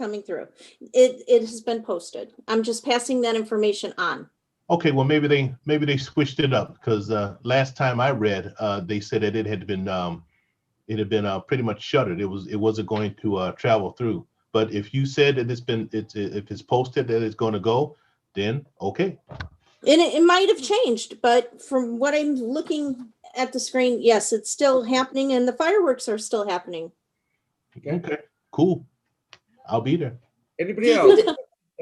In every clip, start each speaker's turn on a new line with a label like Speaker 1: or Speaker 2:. Speaker 1: coming through. It, it has been posted. I'm just passing that information on.
Speaker 2: Okay, well, maybe they, maybe they switched it up, because uh, last time I read, uh, they said that it had been, um, it had been uh, pretty much shuttered. It was, it wasn't going to uh, travel through. But if you said that it's been, it's, if it's posted that it's going to go, then, okay.
Speaker 1: And it, it might have changed, but from what I'm looking at the screen, yes, it's still happening and the fireworks are still happening.
Speaker 3: Okay.
Speaker 2: Okay, cool. I'll be there.
Speaker 3: Anybody else?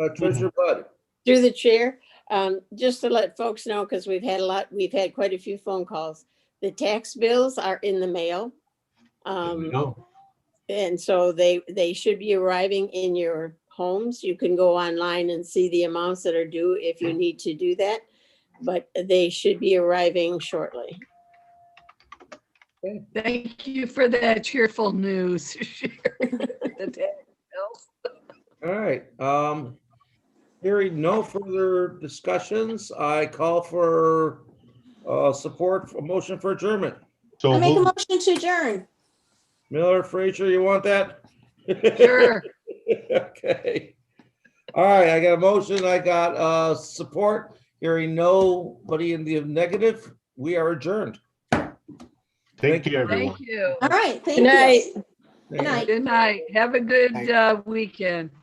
Speaker 3: Uh, Treasurer Bud,
Speaker 4: Through the chair, um, just to let folks know, because we've had a lot, we've had quite a few phone calls. The tax bills are in the mail.
Speaker 2: There we
Speaker 4: Um,
Speaker 2: go.
Speaker 4: and so they, they should be arriving in your homes. You can go online and see the amounts that are due if you need to do that. But they should be arriving shortly.
Speaker 5: Thank you for that cheerful news.
Speaker 3: all right. Um, hearing no further discussions, I call for, uh, support, for motion for adjournment.
Speaker 2: So
Speaker 1: I make a
Speaker 2: moved.
Speaker 1: motion to adjourn.
Speaker 3: Miller, Frazier, you want that?
Speaker 5: Sure.
Speaker 3: Okay. All right, I got a motion, I got, uh, support. Hearing nobody in the negative, we are adjourned.
Speaker 2: take care, everyone.
Speaker 5: Thank you.
Speaker 1: All right, thank
Speaker 4: Good night.
Speaker 1: you. Good night.
Speaker 5: Good night. Have a good uh, weekend.